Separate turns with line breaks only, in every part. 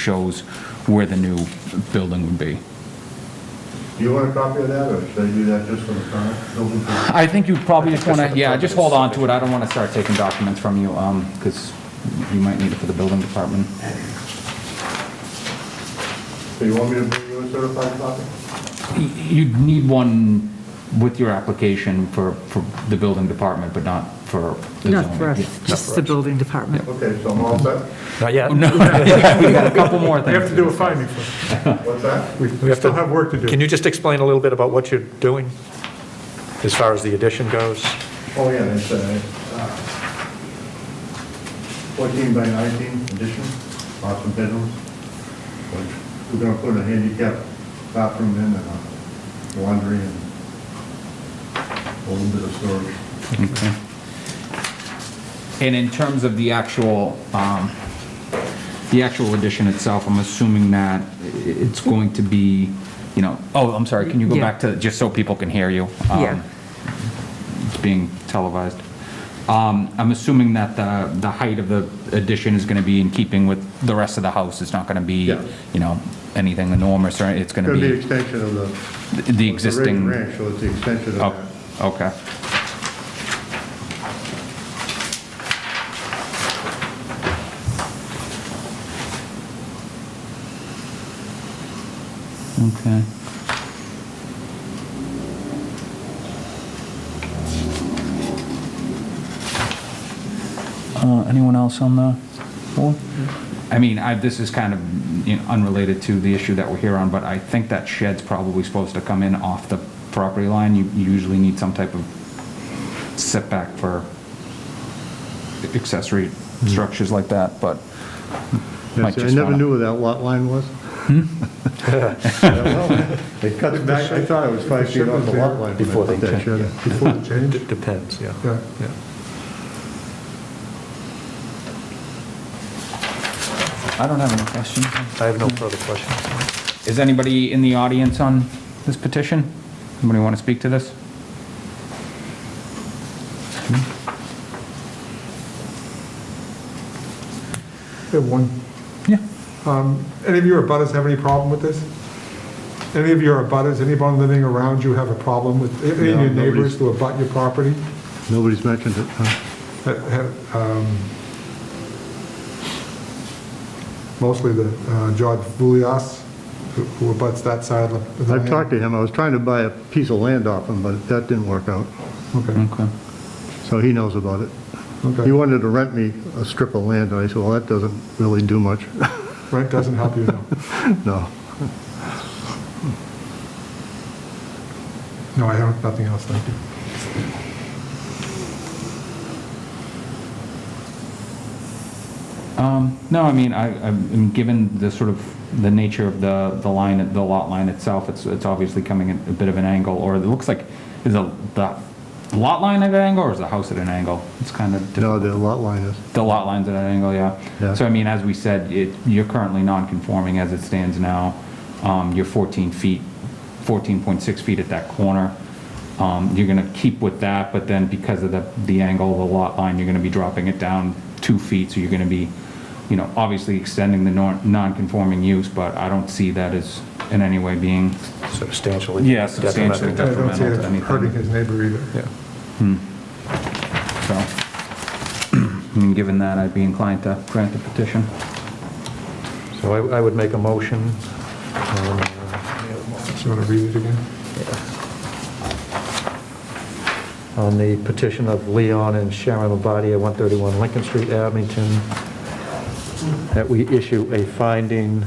shows where the new building would be.
Do you want a copy of that, or should I do that just for the current building?
I think you probably just want
this
to,
is
yeah,
the
just hold on to it. I don't want to start taking documents from you, um, because you might need it for the building department.
So you want me to bring you a certified copy?
Y- You'd need one with your application for, for the building department, but not for the zoning.
Not for us, just the building department.
Okay, so I'm all set?
Not yet.
We got a couple more
We have
things.
to do a finding first.
What's that?
We
have
still
to-
have work to do.
Can you just explain a little bit about what you're doing as far as the addition goes?
Oh, yeah, it's uh, uh, 14 by 19 addition, lots of bedrooms. which We're going to put a handicap bathroom in and uh, laundry and a little bit of storage.
And in terms of the actual, um, the actual addition itself, I'm assuming that i- it's going to be, you know, oh, I'm sorry, can you go
Yeah.
back to, just so people can hear you? Um,
Yeah.
It's being televised. Um, I'm assuming that the, the height of the addition is gonna be in keeping with the rest of the house. It's not gonna be,
Yeah.
you know, anything enormous, or It's gonna
Going to be
be
extension of the...
the- the
it's a raised
existing.
Ranch, so it's the extension of
Oh,
that.
okay. Okay. Uh, anyone else on the board? I mean, I, this is kind of you know, unrelated to the issue that we're here on, but I think that shed's probably supposed to come in off the property line. You you usually need some type of setback for accessory structures like that, but might
Yeah, see, Hmm. I
just
never
wanna- Hmm?
knew where that lot line was. I don't know. It cuts back, I thought it was five feet off the lot line.
Before they
That
check,
shed.
Before the change?
It depends, yeah.
Yeah.
Yeah.
I don't have any questions.
I have no further questions.
Is anybody in the audience on this petition? Anybody want to speak to this?
We have one.
Yeah.
Um, Any of your abutters have any problem with this? Any of your abutters, anyone living around you have a problem with, any of
No,
your
nobody's-
neighbors who abut your property?
Nobody's mentioned it, huh?
that have, um, Mostly the uh, George Vulias, who- who abuts that side of the- the...
I've talked to him, I was trying to buy a piece of land off him, but that didn't work out,
Okay,
Okay.
so he knows about it. He
okay.
wanted to rent me a strip of land, and I said, well, that doesn't really do much,
Rent doesn't help you, no.
no.
No, I have nothing else, thank you.
Um, No, I mean, I, I mean, given the sort of, the nature of the, the line, the lot line itself, it's, it's obviously coming at a bit of an angle, or it looks like, is the, the lot line at an angle, or is the house at an angle? It's kind of,
No, the lot line is,
the lot line's at an angle, yeah.
Yeah.
So I mean, as we said, it, you're currently non-conforming as it stands now. Um, You're 14 feet, 14.6 feet at that corner. Um, You're gonna keep with that, but then because of the, the angle of the lot line, you're gonna be dropping it down two feet, so you're gonna be, you know, obviously extending the nor- non-conforming use, but I don't see that as in any way being,
Substantially.
Yeah, substantially.
I
detrimental.
don't see
Detrimental to
it
anything.
hurting his neighbor either.
Yeah.
so. I mean, given that, I'd be inclined to grant the petition.
So I I would make a motion. um,
Do you want to read it again?
on the petition of Leon and Sharon Lombardi at 131 Lincoln Street, Abington, that we issue a finding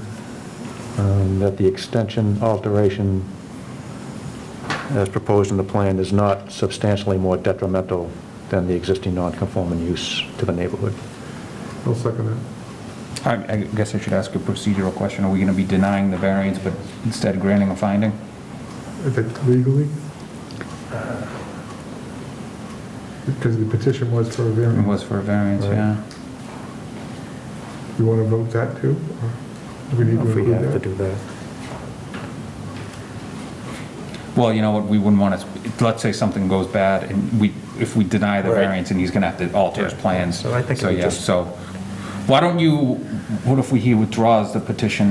um, that the extension alteration as proposed in the plan is not substantially more detrimental than the existing non-conforming use to the neighborhood.
I'll second that.
I I guess I should ask a procedural question. Are we going to be denying the variance but instead granting a finding?
If it legally? Because the petition was for a
It
variance.
was for a variance, yeah.
You want to vote that too? or Do we need to
If we have to
include
do
that?
that.
Well, you know what, we wouldn't want to, let's say something goes bad and we, if we deny the
Right.
variance and he's going to have to alter his
Yeah.
plans.
So I think it would
yeah,
just-
So Why don't you, what if we, he withdraws the petition